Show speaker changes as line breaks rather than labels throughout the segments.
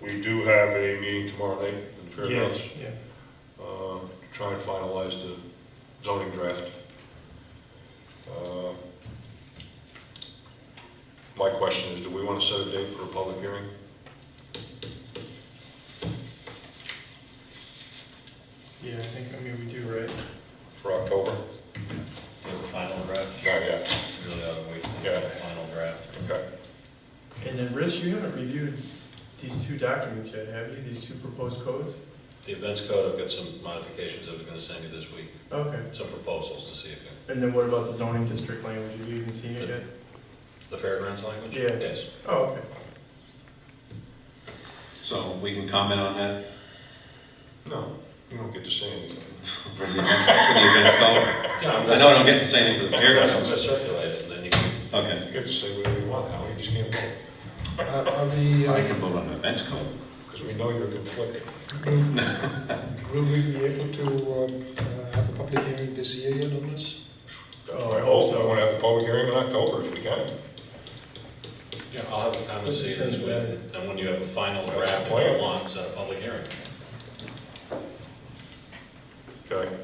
We do have a meeting tomorrow night in
Yeah,
Fairgrounds,
yeah.
um, to try and finalize the zoning draft. Um, My question is, do we want to set a date for a public hearing?
Yeah, I think, I mean, we do, right?
For October?
For the final draft,
Not yet,
really ought to wait for
Yeah.
the final draft.
okay.
And then, Rich, you haven't reviewed these two documents yet, have you? These two proposed codes?
The events code, I've got some modifications that we're gonna send you this week,
Okay.
some proposals to see if, it-
And then what about the zoning district language? Have you even seen it yet?
the fairgrounds language?
Yeah.
Yes.
Oh, okay.
So we can comment on that
No, you don't get to say anything.
for the events, for the events code? I know I don't get to say anything for the
I'm
fairgrounds.
gonna circulate it, and then you can,
Okay.
You get to say whatever you want, Howie, you just can't vote,
Uh, Are the,
I
uh,
can vote on the events code.
because we know you're conflicted.
will will we be able to um, uh, have a public hearing this year yet on this?
That's why I also want to have a public hearing in October if we can.
I'll have a time to see it this week, and when you have a final
That's
draft,
the
if
plan.
you want, set a public hearing.
Okay.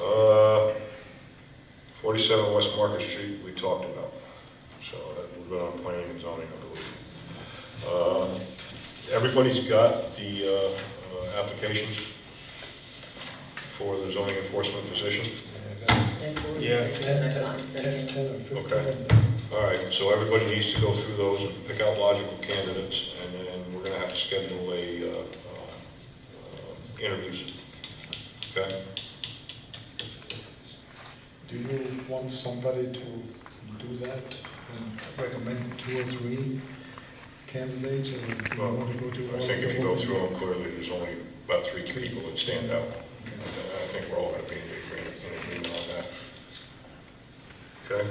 Uh, 47 West Market Street, we talked about, so that- we've been on planning and zoning, I believe. Uh, Everybody's got the uh, uh, applications for the zoning enforcement position?
Yeah.
Ten, ten, ten, ten or
Okay.
fifteen.
All right, so everybody needs to go through those and pick out logical candidates, and then we're gonna have to schedule a, uh, uh, interviews. Okay?
Do you want somebody to do that and recommend two or three candidates or do you
Well,
want to go to?
I
all
think if you
of
go
them?
through them clearly, there's only about three people that stand out. And I think we're all gonna be in agreement- in agreement on that. Okay?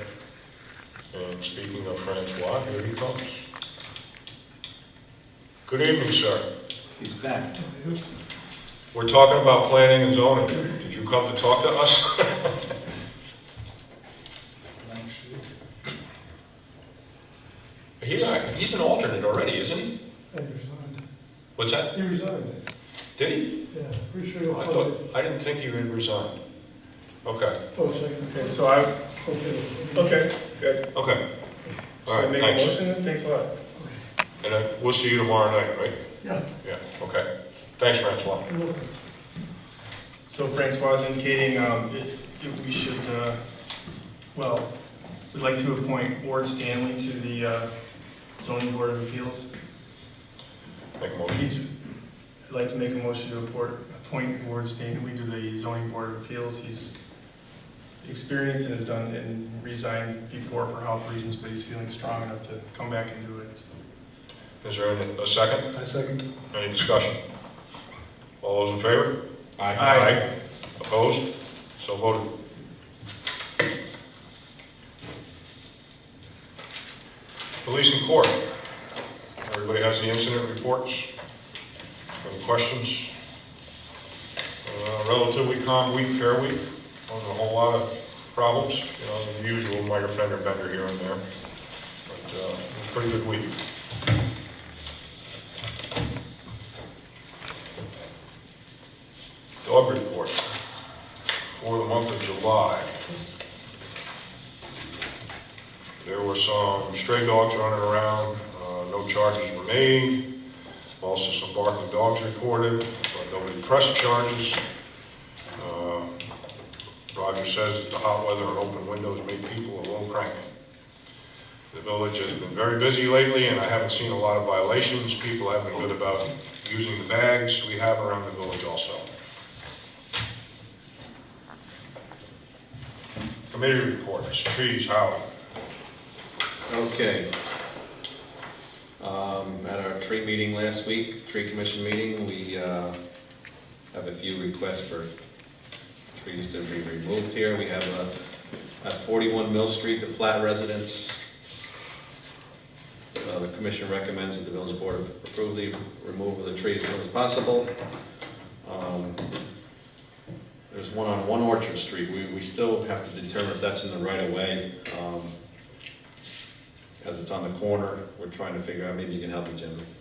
And speaking of Francois, here he comes. Good evening, sir.
He's back.
We're talking about planning and zoning. Did you come to talk to us?
He's,
uh,
he's an alternate already, isn't he?
He resigned.
What's that?
He resigned,
Did he?
yeah, pretty sure
I
he'll follow.
thought, I didn't think he had resigned. Okay,
Oh, second.
Okay, so I,
Okay.
okay, good.
okay. All
So
right,
make a
thanks.
motion, then? thanks a lot.
And uh, we'll see you tomorrow night, right?
Yeah,
Yeah, okay. Thanks, Francois.
you're welcome.
So Francois is indicating, um, if, if we should, uh, well, we'd like to appoint Ward Stanley to the, uh, zoning board of appeals.
Make a motion.
He's, I'd like to make a motion to appoint, appoint Ward Stanley to the zoning board of appeals. He's experienced and has done, and resigned before for health reasons, but he's feeling strong enough to come back and do it.
Is there any- a second?
I second.
Any discussion? All those in favor?
Aye.
Opposed? So voted. Police and court. Everybody has the incident reports? Any questions? Uh, Relatively calm week, fair week. Wasn't a whole lot of problems, you know, the usual minor fender bender here and there. But uh, it was a pretty good week. Dog report for the month of July. There were some stray dogs running around, uh, no charges were made. Also some barking dogs reported, but nobody pressed charges. Uh, Roger says that the hot weather and open windows make people a little cranky. The village has been very busy lately, and I haven't seen a lot of violations. People have been good about using the bags we have around the village also. Committee reports, trees, Howie.
Okay. Um, At our tree meeting last week, tree commission meeting, we uh, have a few requests for trees to be removed here. We have uh, at 41 Mill Street, the Platt residence. Uh, The commission recommends that the village board approve the removal of the trees as soon as possible. Um, There's one on One Orchard Street. We we still have to determine if that's in the right of way. Um, as it's on the corner, we're trying to figure out, maybe you can help me, Jim,